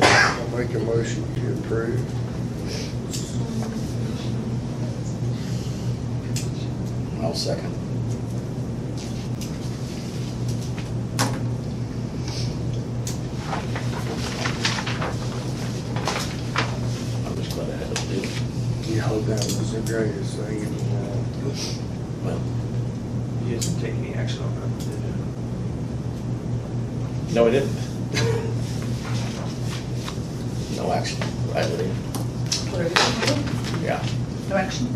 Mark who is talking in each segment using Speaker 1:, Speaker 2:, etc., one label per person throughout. Speaker 1: Make a motion to approve.
Speaker 2: I'll second. I'm just glad I had to do it.
Speaker 1: Yeah, that was the greatest thing in the world.
Speaker 2: Well,
Speaker 3: You guys didn't take any action on that, did you?
Speaker 2: no, I didn't. No action, right, Lydia? Yeah,
Speaker 4: No action.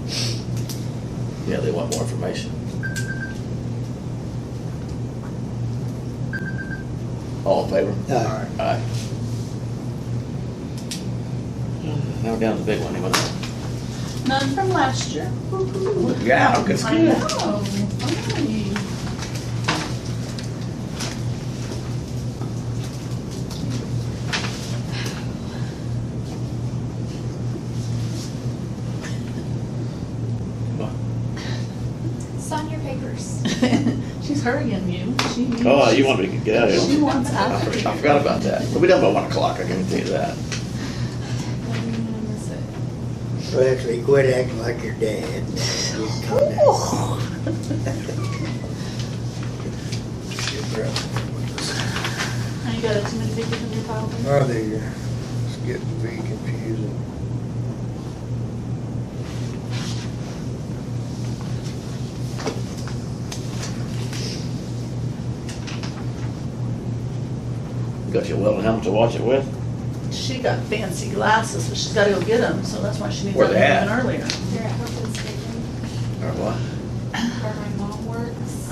Speaker 2: yeah, they want more information. All in
Speaker 5: Uh,
Speaker 2: favor?
Speaker 1: Aye.
Speaker 2: Aye. Now we're down to the big one, anyone?
Speaker 4: None from last year. Woo-hoo.
Speaker 2: Yeah, good,
Speaker 4: I know. Finally.
Speaker 6: Sign your papers.
Speaker 4: She's hurrying you. She needs-
Speaker 2: Oh, you want me to get out of
Speaker 4: She
Speaker 2: here?
Speaker 4: wants out.
Speaker 2: I forgot- I forgot about that. We'll be done by one o'clock, I can tell you that.
Speaker 6: When is it?
Speaker 5: Well, actually, quit acting like your dad. Just calm down.
Speaker 4: Now you got too many papers in your file. there?
Speaker 1: I think it's getting to be confusing.
Speaker 2: Got your Weldon helmet to watch it with?
Speaker 4: She got fancy glasses, but she's gotta go get them, so that's why she needs
Speaker 2: Where
Speaker 4: them
Speaker 2: they
Speaker 4: even
Speaker 2: at?
Speaker 4: earlier.
Speaker 6: They're at Hope and Station
Speaker 2: Or what?
Speaker 6: where my mom works.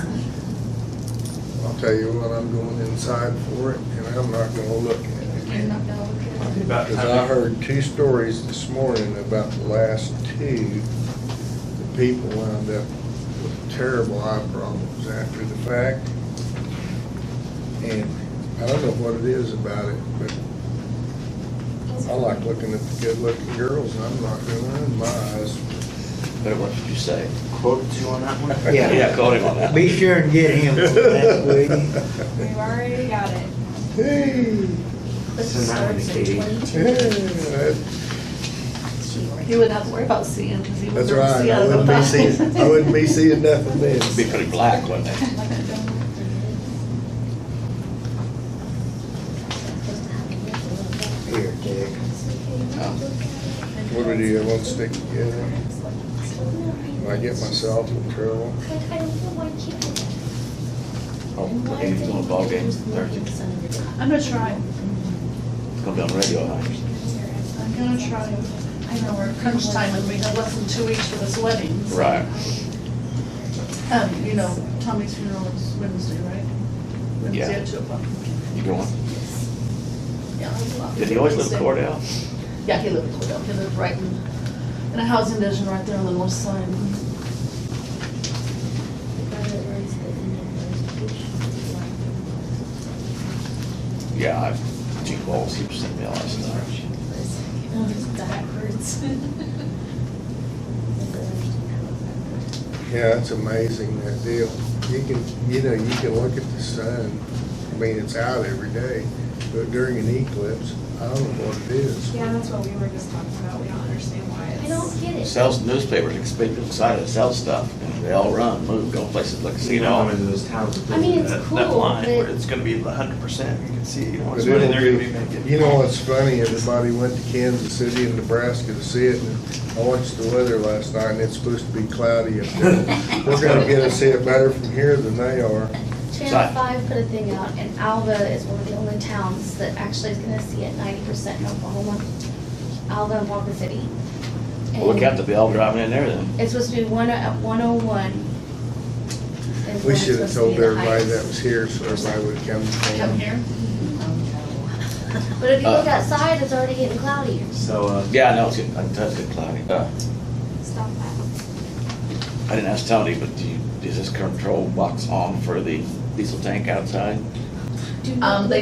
Speaker 1: I'll tell you what, I'm going inside for it and I'm not gonna look at
Speaker 6: You're
Speaker 1: it.
Speaker 6: not gonna look at it.
Speaker 3: About
Speaker 1: Cause I
Speaker 3: time.
Speaker 1: heard two stories this morning about the last two. The people wound up with terrible eye problems after the fact. And I don't know what it is about it, but I like looking at the good-looking girls, and I'm not gonna run my eyes.
Speaker 2: Better watch what you say.
Speaker 3: Quote you on that one?
Speaker 5: Yeah.
Speaker 2: Yeah, call him on that.
Speaker 5: Be sure and get him one, that, will you?
Speaker 6: We've already got it.
Speaker 1: Hey,
Speaker 4: It
Speaker 3: Send that one to
Speaker 4: starts at
Speaker 3: Katie.
Speaker 4: 22.
Speaker 1: hey, that-
Speaker 4: You wouldn't have to worry about seeing, cause you wouldn't
Speaker 1: That's
Speaker 4: be able to
Speaker 1: right,
Speaker 4: see out
Speaker 1: I
Speaker 4: of
Speaker 1: wouldn't be seeing,
Speaker 4: the
Speaker 1: I wouldn't be seeing nothing
Speaker 2: It'd be
Speaker 1: then.
Speaker 2: pretty black, wouldn't it?
Speaker 6: Like you don't have to do it.
Speaker 5: Here, Dick.
Speaker 6: It's okay, you
Speaker 2: Oh.
Speaker 6: can look at it.
Speaker 1: What do you want to stick together?
Speaker 6: And
Speaker 1: I get myself in trouble.
Speaker 6: I don't know why you can't do that.
Speaker 2: Oh, the Indians on a ball game Thursday.
Speaker 4: I'm gonna try.
Speaker 2: Come down radio, huh?
Speaker 4: I'm gonna try. I know we're crunch time and we have less than two weeks for this wedding. so-
Speaker 2: Right.
Speaker 4: Um, you know, Tommy's funeral is Wednesday, right? Wednesday at two o'clock.
Speaker 2: You going?
Speaker 4: Yeah, that's a lot.
Speaker 2: Did he always live
Speaker 4: Wednesday.
Speaker 2: in Cordell?
Speaker 4: Yeah, he lived in Cordell, he lived right in, in a housing division right there on the north side.
Speaker 2: Yeah, I've, Gene Bowles, he was sending me all that stuff.
Speaker 6: Backwards.
Speaker 1: Yeah, it's amazing, that deal. You can, you know, you can look at the sun, I mean, it's out every day, but during an eclipse, I don't know what it is.
Speaker 7: Yeah, that's what we were just talking about. We don't understand why it's.
Speaker 6: I don't get it.
Speaker 2: Sells newspapers, it's people excited to sell stuff. They all run, move, go places, like,
Speaker 3: So
Speaker 2: see
Speaker 3: you
Speaker 2: it
Speaker 3: know, I'm
Speaker 2: all.
Speaker 3: into those towns that
Speaker 6: I mean,
Speaker 3: do
Speaker 6: it's
Speaker 3: that, that
Speaker 6: cool,
Speaker 3: line where
Speaker 6: but-
Speaker 3: it's gonna be a hundred percent, you can see, you know,
Speaker 1: But
Speaker 3: it's money
Speaker 1: it'll
Speaker 3: they're
Speaker 1: be-
Speaker 3: gonna be making.
Speaker 1: You know, it's funny, everybody went to Kansas City and Nebraska to see it, and I watched the weather last night, and it's supposed to be cloudy up there. They're gonna get us hit better from here than they are.
Speaker 2: Sorry.
Speaker 6: Channel Five put a thing out, and Alva is one of the only towns that actually is gonna see it ninety percent in Oklahoma. Alva and Walker City.
Speaker 2: Well, Look out,
Speaker 6: And
Speaker 2: they'll be all driving in there then.
Speaker 6: It's supposed to be one, at one oh one.
Speaker 1: We should have told everybody that was here, so everybody would come.
Speaker 4: Come here.
Speaker 2: Mm-hmm.
Speaker 4: Um,
Speaker 6: But if you look
Speaker 2: Uh.
Speaker 6: outside, it's already getting cloudy.
Speaker 3: So, uh,
Speaker 2: Yeah, I know, it's good, I can tell it's good cloudy. Uh,
Speaker 6: Stop that.
Speaker 2: I didn't ask Tony, but do you, is this control box on for the diesel tank outside?
Speaker 6: Do
Speaker 4: Um,
Speaker 6: not-
Speaker 4: they